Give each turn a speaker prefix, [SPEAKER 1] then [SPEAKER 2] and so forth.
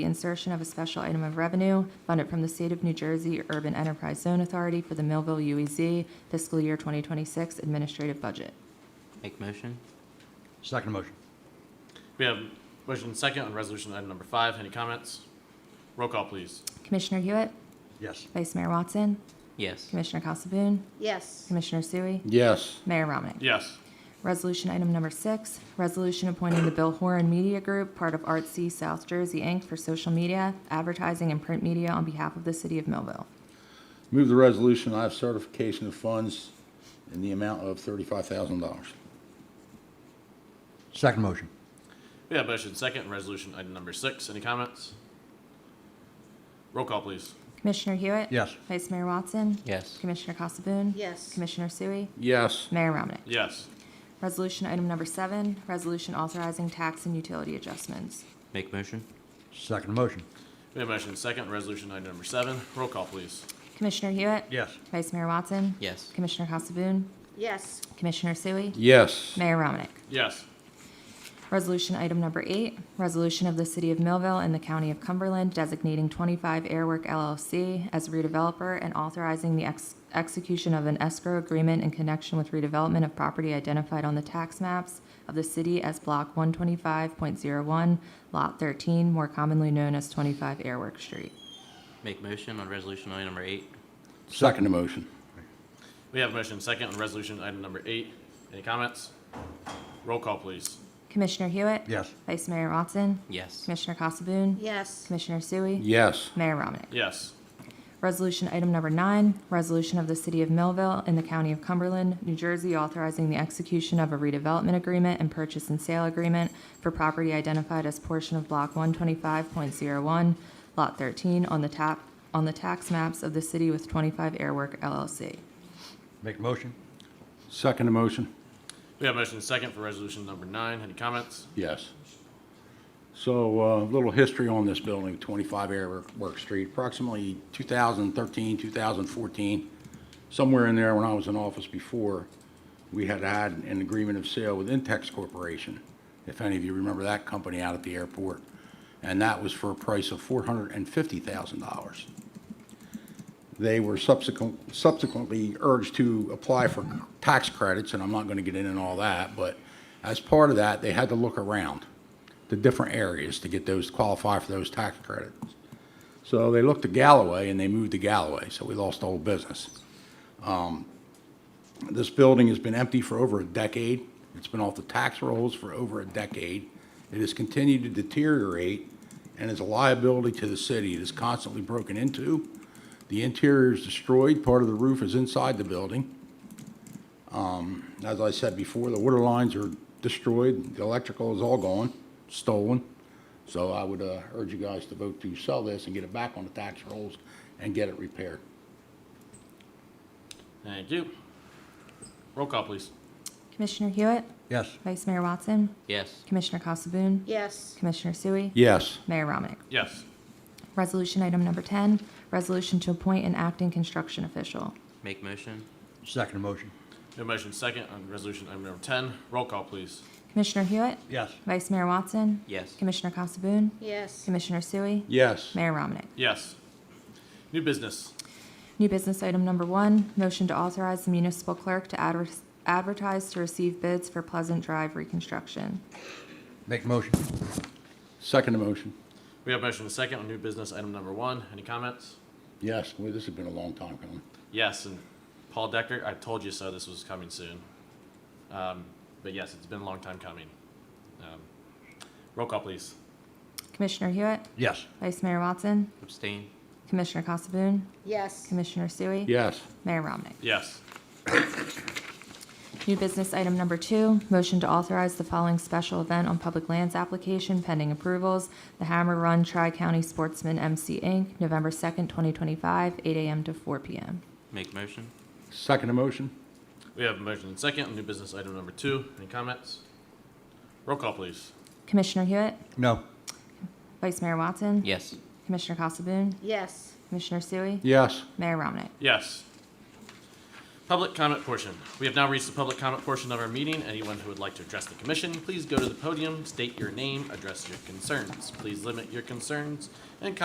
[SPEAKER 1] the insertion of a special item of revenue funded from the State of New Jersey Urban Enterprise Zone Authority for the Millville UEZ fiscal year 2026 administrative budget.
[SPEAKER 2] Make motion?
[SPEAKER 3] Second motion.
[SPEAKER 4] We have motion and second on resolution item number five. Any comments? Roll call, please.
[SPEAKER 1] Commissioner Hewitt,
[SPEAKER 3] Yes.
[SPEAKER 1] Vice Mayor Watson,
[SPEAKER 2] Yes.
[SPEAKER 1] Commissioner Casabun,
[SPEAKER 5] yes,
[SPEAKER 1] Commissioner Sui,
[SPEAKER 3] Yes.
[SPEAKER 1] Mayor Ramnick.
[SPEAKER 4] Yes.
[SPEAKER 1] Resolution item number six, resolution appointing the Bill Horan Media Group, part of Artsy South Jersey, Inc., for social media, advertising, and print media on behalf of the city of Millville.
[SPEAKER 6] Move the resolution, I have certification of funds in the amount of $35,000.
[SPEAKER 3] Second motion.
[SPEAKER 4] We have motion and second on resolution item number six. Any comments? Roll call, please.
[SPEAKER 1] Commissioner Hewitt?
[SPEAKER 3] Yes.
[SPEAKER 1] Vice Mayor Watson?
[SPEAKER 2] Yes.
[SPEAKER 1] Commissioner Casabun?
[SPEAKER 5] yes,
[SPEAKER 1] Commissioner Sui?
[SPEAKER 6] Yes.
[SPEAKER 1] Mayor Ramnick.
[SPEAKER 4] Yes.
[SPEAKER 1] Resolution item number seven, resolution authorizing tax and utility adjustments.
[SPEAKER 2] Make motion?
[SPEAKER 3] Second motion.
[SPEAKER 4] We have motion and second on resolution item number seven. Roll call, please.
[SPEAKER 1] Commissioner Hewitt?
[SPEAKER 3] Yes.
[SPEAKER 1] Vice Mayor Watson?
[SPEAKER 2] Yes.
[SPEAKER 1] Commissioner Casabun?
[SPEAKER 5] yes,
[SPEAKER 1] Commissioner Sui?
[SPEAKER 6] Yes.
[SPEAKER 1] Mayor Ramnick.
[SPEAKER 4] Yes.
[SPEAKER 1] Resolution item number eight, resolution of the City of Millville and the County of Cumberland designating 25 Airwork LLC as redeveloper and authorizing the ex- execution of an escrow agreement in connection with redevelopment of property identified on the tax maps of the city as Block 125.01, Lot 13, more commonly known as 25 Airwork Street.
[SPEAKER 2] Make motion on resolution item number eight?
[SPEAKER 6] Second motion.
[SPEAKER 4] We have motion and second on resolution item number eight. Any comments? Roll call, please.
[SPEAKER 1] Commissioner Hewitt?
[SPEAKER 3] Yes.
[SPEAKER 1] Vice Mayor Watson?
[SPEAKER 2] Yes.
[SPEAKER 1] Commissioner Casabun?
[SPEAKER 5] yes,
[SPEAKER 1] Commissioner Sui?
[SPEAKER 6] Yes.
[SPEAKER 1] Mayor Ramnick.
[SPEAKER 4] Yes.
[SPEAKER 1] Resolution item number nine, resolution of the City of Millville and the County of Cumberland, New Jersey, authorizing the execution of a redevelopment agreement and purchase and sale agreement for property identified as portion of Block 125.01, Lot 13, on the tap, on the tax maps of the city with 25 Airwork LLC.
[SPEAKER 3] Make a motion.
[SPEAKER 6] Second motion.
[SPEAKER 4] We have motion and second for resolution number nine. Any comments?
[SPEAKER 6] Yes. So a little history on this building, 25 Airwork Street, approximately 2013, 2014, somewhere in there when I was in office before, we had had an agreement of sale with Intex Corporation, if any of you remember that company out at the airport, and that was for a price of $450,000. They were subsequent, subsequently urged to apply for tax credits, and I'm not going to get into all that, but as part of that, they had to look around to different areas to get those, qualify for those tax credits. So they looked to Galloway and they moved to Galloway, so we lost the whole business. Um, This building has been empty for over a decade. It's been off the tax rolls for over a decade. It has continued to deteriorate and is a liability to the city. It is constantly broken into. The interior is destroyed. Part of the roof is inside the building. Um, As I said before, the water lines are destroyed. The electrical is all gone, stolen. So I would uh, urge you guys to vote to sell this and get it back on the tax rolls and get it repaired.
[SPEAKER 4] Thank you. Roll call, please.
[SPEAKER 1] Commissioner Hewitt?
[SPEAKER 3] Yes.
[SPEAKER 1] Vice Mayor Watson?
[SPEAKER 2] Yes.
[SPEAKER 1] Commissioner Casabun?
[SPEAKER 5] yes,
[SPEAKER 1] Commissioner Sui?
[SPEAKER 6] Yes.
[SPEAKER 1] Mayor Ramnick.
[SPEAKER 4] Yes.
[SPEAKER 1] Resolution item number 10, resolution to appoint an acting construction official.
[SPEAKER 2] Make motion?
[SPEAKER 3] Second motion.
[SPEAKER 4] We have motion and second on resolution item number ten. Roll call, please.
[SPEAKER 1] Commissioner Hewitt?
[SPEAKER 3] Yes.
[SPEAKER 1] Vice Mayor Watson?
[SPEAKER 2] Yes.
[SPEAKER 1] Commissioner Casabun?
[SPEAKER 5] yes,
[SPEAKER 1] Commissioner Sui?
[SPEAKER 6] Yes.
[SPEAKER 1] Mayor Ramnick.
[SPEAKER 4] Yes. New business.
[SPEAKER 1] New business item number one, motion to authorize the municipal clerk to adver- advertise to receive bids for Pleasant Drive reconstruction.
[SPEAKER 3] Make a motion.
[SPEAKER 6] Second motion.
[SPEAKER 4] We have motion and second on new business item number one. Any comments?
[SPEAKER 6] Yes. Well, this has been a long time coming.
[SPEAKER 4] Yes, and Paul Decker, I told you so, this was coming soon. Um, but yes, it's been a long time coming. Um, Roll call, please.
[SPEAKER 1] Commissioner Hewitt?
[SPEAKER 3] Yes.
[SPEAKER 1] Vice Mayor Watson?
[SPEAKER 2] Abstain?
[SPEAKER 1] Commissioner Casabun?
[SPEAKER 5] yes,
[SPEAKER 1] Commissioner Sui?
[SPEAKER 6] Yes.
[SPEAKER 1] Mayor Ramnick.
[SPEAKER 4] Yes.
[SPEAKER 1] New business item number two, motion to authorize the following special event on public lands application pending approvals. The Hammer Run Tri-County Sportsman MC Inc., November 2nd, 2025, 8 a.m. to 4 p.m.
[SPEAKER 2] Make motion?
[SPEAKER 6] Second motion.
[SPEAKER 4] We have motion and second on new business item number two. Any comments? Roll call, please.
[SPEAKER 1] Commissioner Hewitt?
[SPEAKER 3] No.
[SPEAKER 1] Vice Mayor Watson?
[SPEAKER 2] Yes.
[SPEAKER 1] Commissioner Casabun?
[SPEAKER 5] yes,
[SPEAKER 1] Commissioner Sui?
[SPEAKER 6] Yes.
[SPEAKER 1] Mayor Ramnick.
[SPEAKER 4] Yes. Public comment portion. We have now reached the public comment portion of our meeting. Anyone who would like to address the commission, please go to the podium, state your name, address your concerns. Please limit your concerns and comments